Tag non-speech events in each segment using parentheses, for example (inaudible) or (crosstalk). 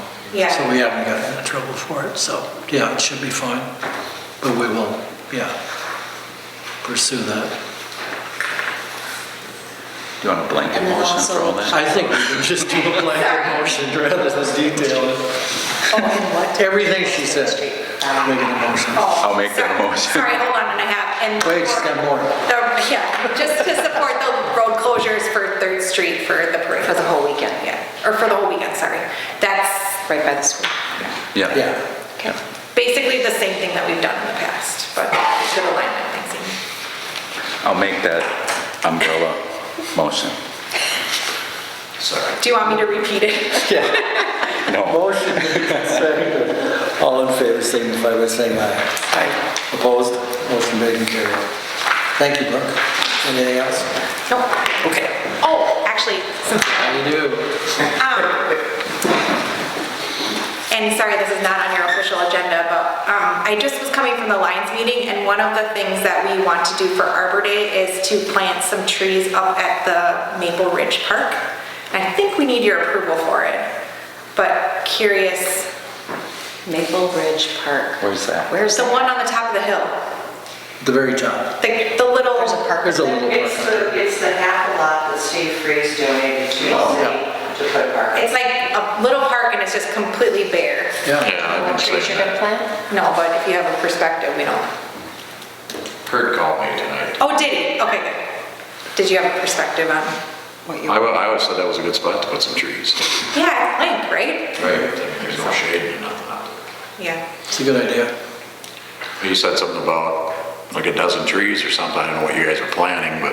So we Yeah, haven't gotten into trouble for it, so, yeah, it should be fine. But we will, yeah, pursue that. Do you want a blanket And then motion for all also- that? I think we should just do a blanket motion rather than detail it. Oh, and what? Everything she said, Street. making a motion. oh. I'll make that sorry- motion. Sorry, hold on, and I have, and. Wait, she's got more. The- Yeah, just to support the road closures for Third Street for the parade. For the whole weekend, Yeah, or for the whole weekend, sorry. That's right by the school. Yeah. Yeah, Okay. basically the same thing that we've done in the past, but it's good alignment, thanks, Amy. I'll make that umbrella motion. Do you want me to repeat it? No. Motion seconded. All in favor, signify by saying aye. I- Opposed? Motion made and carried. Thank you, Brooke. Anything else? Nope. Okay. Oh, actually, some- how you do? and sorry, this is not on your official agenda, but um, I just was coming from the Lions meeting, and one of the things that we want to do for Arbor Day is to plant some trees up at the Maple Ridge Park. And I think we need your approval for it, but curious, Maple Ridge Park. Where's that? Where's there's the the, one on the top of the hill, The very top. the, the little. there's a park. There's a little It's one. the, it's the half a lot that Steve Freeze donated to the city to put a park. It's like a little park and it's just completely bare. Yeah, What trees you're gonna plant? No, but if you have a perspective, we don't. Kurt called me tonight. Oh, did he? Okay, good. Did you have a perspective on? What you I wa- I always thought that was a good spot to put some trees. Yeah, Link, right? Right. There's no shade or nothing out there. Yeah. it's a good idea. He said something about like a dozen trees or something, I don't know what you guys are planning, but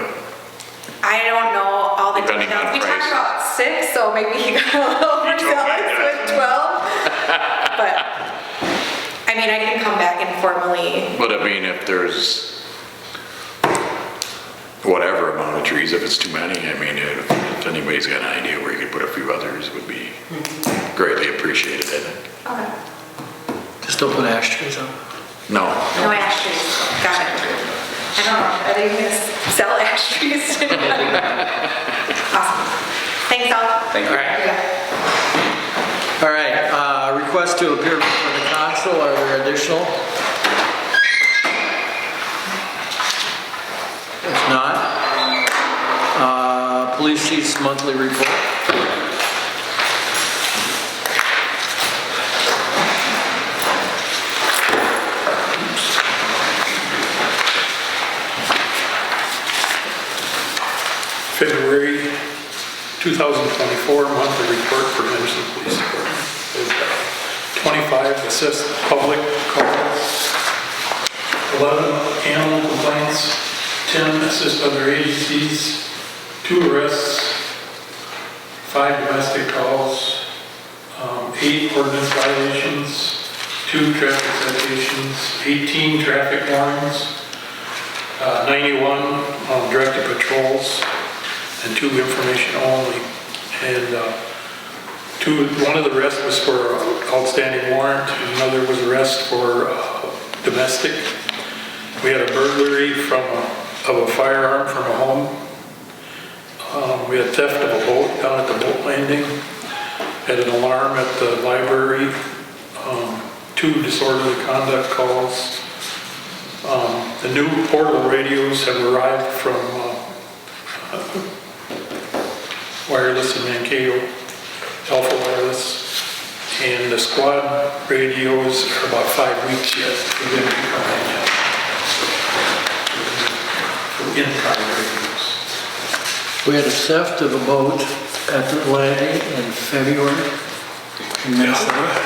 I don't know all the Depending details. on We talked prices. about six, so maybe he got (laughs) a little You told me overzealous with that. 12. But, I mean, I can come back and formally, but I mean, if there's whatever amount of trees, if it's too many, I mean, if if anybody's got an idea where you could put a few others, it would be greatly appreciated, I think. Just don't put ash trees on. No, no ash trees. Got it. I don't know, are they going to sell (laughs) ash trees? Awesome. Thanks all. Thank you. All right, uh, request to appear before the council, are there additional? If not, uh, police chief's monthly report. February 2024 monthly report for Henderson Police Department. uh, is 25 assist public calls, 11 animal complaints, 10 assist other agencies, 2 arrests, 5 domestic calls, um, 8 ordinance violations, 2 traffic citations, 18 traffic warrants, uh, 91 um, directed patrols, and two information only. And uh, two, one of the rest was for outstanding warrant, and another was arrest for uh, domestic. We had a burglary from, a- of a firearm from a home. Um, We had theft of a boat down at the boat landing. Had an alarm at the library. Um, Two disorderly conduct calls. Um, The new portable radios have arrived from uh, wireless in Mankato, Alpha Wireless, and the squad radios are about five weeks yet. They didn't come in yet. In radios. We had a theft of a boat at the landing in February in Minnesota.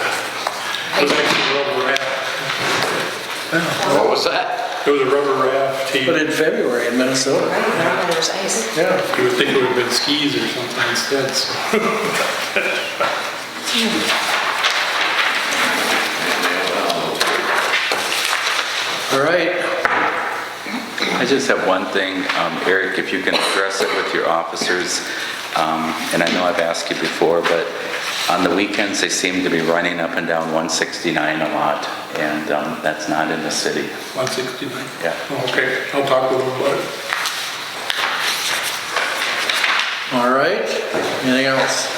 It was actually a rubber raft. what was that? It was a rubber raft. He- But in February in Minnesota, Right, normally there's ice. yeah. You would think it would have been skis or something instead. so. All right, I just have one thing, um, Eric, if you can address it with your officers, um, and I know I've asked you before, but on the weekends, they seem to be running up and down 169 a lot, and um, that's not in the city. 169? Yeah. Oh, Okay, I'll talk with him about it. all right, anything else?